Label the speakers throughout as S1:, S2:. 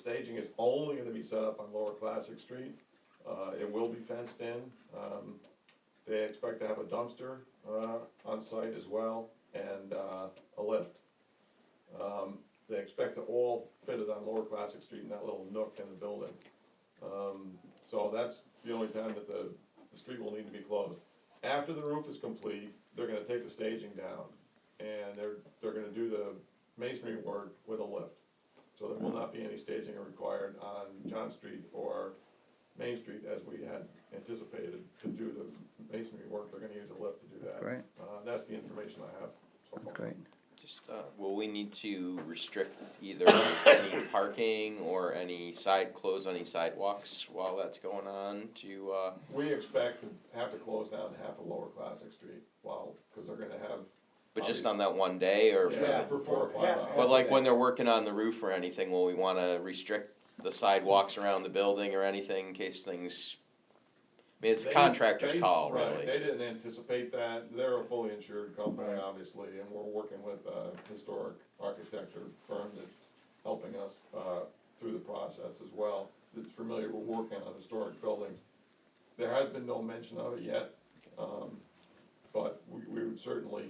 S1: staging is only gonna be set up on Lower Classic Street. Uh, it will be fenced in. Um, they expect to have a dumpster, uh, on site as well and, uh, a lift. Um, they expect to all fit it on Lower Classic Street in that little nook in the building. Um, so that's the only time that the, the street will need to be closed. After the roof is complete, they're gonna take the staging down, and they're, they're gonna do the masonry work with a lift. So there will not be any staging required on John Street or Main Street as we had anticipated to do the masonry work, they're gonna use a lift to do that.
S2: That's great.
S1: Uh, that's the information I have so far.
S2: That's great.
S3: Just, uh, will we need to restrict either any parking or any side, close any sidewalks while that's going on to, uh,
S1: We expect to have to close down half of Lower Classic Street, while, cause they're gonna have.
S3: but just on that one day or? for the-
S1: Yeah, for four or five hours.
S3: But like when they're working on the roof or anything, will we wanna restrict the sidewalks around the building or anything in case things? I mean, it's the
S1: They-
S3: contractor's
S1: they-
S3: call,
S1: right,
S3: really.
S1: They didn't anticipate that, they're a fully insured company, obviously, and we're working with a historic architecture firm that's helping us, uh, through the process as well, that's familiar with working on historic buildings. There has been no mention of it yet, um, but we, we would certainly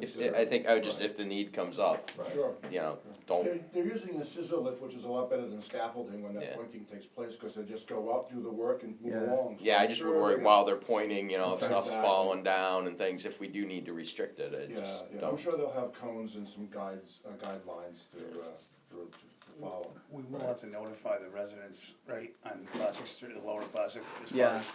S3: If,
S1: consider.
S3: I think I would just,
S1: Right,
S3: if the need comes up,
S1: right.
S4: Sure.
S3: you know,
S4: They're,
S3: don't,
S4: they're using the scissor lift, which is a lot better than scaffolding when
S3: Yeah.
S4: that pointing takes place, cause they just go up, do the work and move
S2: Yeah.
S4: along. So
S3: yeah, I
S4: I'm
S3: just
S4: sure
S3: would worry
S4: they're-
S3: while they're pointing, you know, if stuff's
S4: Exactly.
S3: falling down and things, if we do need to restrict it, I
S4: Yeah,
S3: just
S4: yeah, I'm
S3: don't.
S4: sure they'll have cones and some guides, uh, guidelines to, uh, to, to follow.
S5: We will have to notify the residents, right, on Classic Street, the lower Classic, as far
S2: Yeah.
S5: as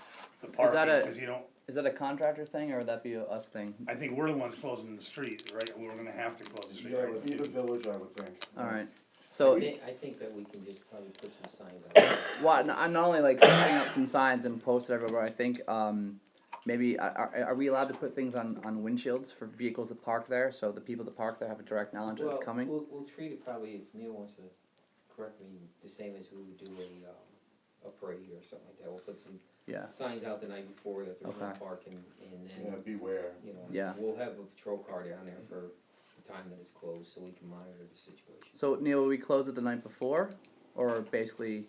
S5: the
S2: Is
S5: parking,
S2: that a-
S5: because you don't,
S2: Is that a contractor thing or would that be a us thing?
S5: I think we're the ones closing the street, right, we're gonna have to close the street.
S4: Yeah, with either
S5: right?
S4: village, I would think.
S2: All right.
S6: I
S2: So,
S6: think, I think that we can just probably put some signs out there.
S2: why, I'm not only like setting up some signs and post it everywhere, I think, um, maybe, are, are- are we allowed to put things on, on windshields for vehicles that park there? So the people that park there have a direct knowledge that it's
S6: Well,
S2: coming?
S6: We'll, we'll treat it probably, if Neil wants to correct me, the same as we would do a, um, a parade or something like that. We'll put some
S2: Yeah,
S6: signs out the night before that there's no
S2: Okay.
S6: parking, and
S4: Yeah,
S6: then,
S4: beware.
S6: you know.
S2: Yeah.
S6: We'll have a patrol car down there for the time that it's closed, so we can monitor the situation.
S2: so Neil, will we close it the night before or basically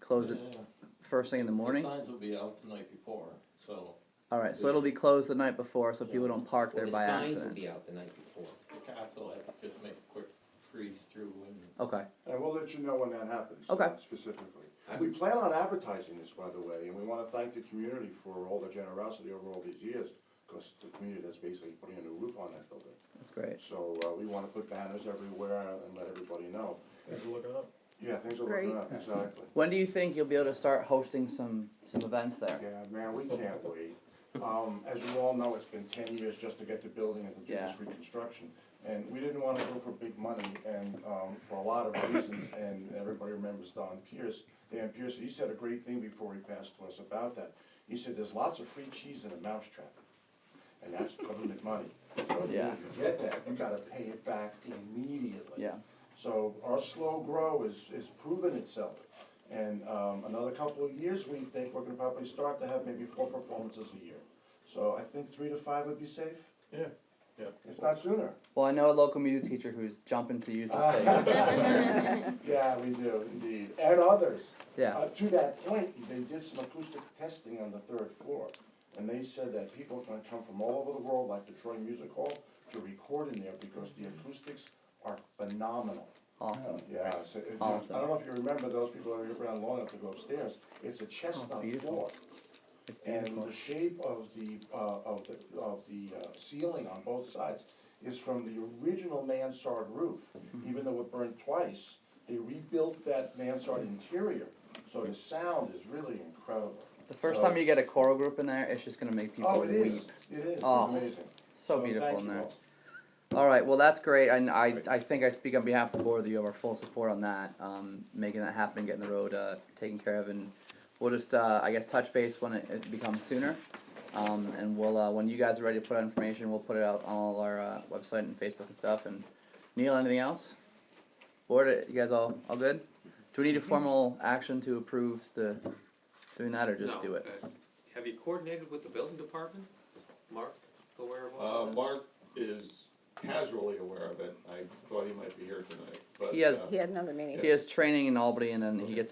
S2: close it first thing in the morning?
S7: Signs will be out the night before, so
S2: All right, so it'll be closed the night before so people don't park
S6: Well,
S2: there
S6: the
S2: by
S6: signs will
S2: accident.
S6: be out the night before.
S7: the cops will have to just make a quick freeze through and
S2: Okay,
S4: And we'll let you know when that happens.
S2: Okay.
S4: uh, Specifically. We plan on advertising this, by the way, and we wanna thank the community for all the generosity over all these years, cause it's the community that's basically putting a new roof on that building.
S2: that's great.
S4: So, uh, we wanna put banners everywhere and let everybody know.
S1: Thanks for looking up.
S4: Yeah, things are looking up, exactly.
S2: When do you think you'll be able to start hosting some, some events there?
S4: Yeah, man, we can't wait. Um, as you all know, it's been ten years just to get the building and to do this
S2: Yeah.
S4: reconstruction. And we didn't wanna go for big money and, um, for a lot of reasons, and everybody remembers Don Pierce. Dan Pierce, he said a great thing before he passed to us about that. He said, there's lots of free cheese in a mousetrap, and that's government money. So if you
S2: Yeah.
S4: get that, you gotta pay it back immediately.
S2: Yeah.
S4: So our slow grow is, is proven itself. And, um, another couple of years, we think we're gonna probably start to have maybe four performances a year. So I think three to five would be safe,
S1: Yeah, yeah.
S4: if not sooner.
S2: Well, I know a local music teacher who's jumping to use the
S4: Ah.
S2: space.
S4: Yeah, we do, indeed, and others.
S2: Yeah.
S4: Uh, to that point, they did some acoustic testing on the third floor, and they said that people are gonna come from all over the world, like the Troy Music Hall, to record in there because the acoustics are phenomenal.
S2: Awesome.
S4: Yeah, so, it-
S2: Awesome.
S4: I don't know if you remember, those people that are around long enough to go upstairs, it's a chestnut
S2: Oh, beautiful.
S4: floor.
S2: It's
S4: And
S2: beautiful.
S4: the shape of the, uh, of the, of the uh, ceiling on both sides is from the original mansard roof.
S2: Mm-hmm.
S4: Even though it burned twice, they rebuilt that mansard interior, so the sound is really incredible.
S2: The first time you get a choral group in there, it's just gonna make people
S4: uh, Oh, it
S2: weep.
S4: is, it is, it's
S2: Oh,
S4: amazing.
S2: So beautiful
S4: thank
S2: in
S4: you
S2: there.
S4: all.
S2: All right, well, that's great, and I, I think I speak on behalf of the board that you have our full support on that, um, making that happen, getting the road, uh, taken care of, and we'll just, uh, I guess, touch base when it, it becomes sooner, um, and we'll, uh, when you guys are ready to put out information, we'll put it out on all our, uh, website and Facebook and stuff, and Neil, anything else? Board, uh, you guys all, all good? Do we need a formal action to approve the, doing that, or just
S8: No,
S2: do it?
S8: uh, Have you coordinated with the building department? Mark, aware of
S1: Uh,
S8: all of this?
S1: Mark is casually aware of it, I thought he might be here tonight, but.
S2: He has-
S1: uh,
S8: He had another meeting.
S2: He has training in Albany, and then he gets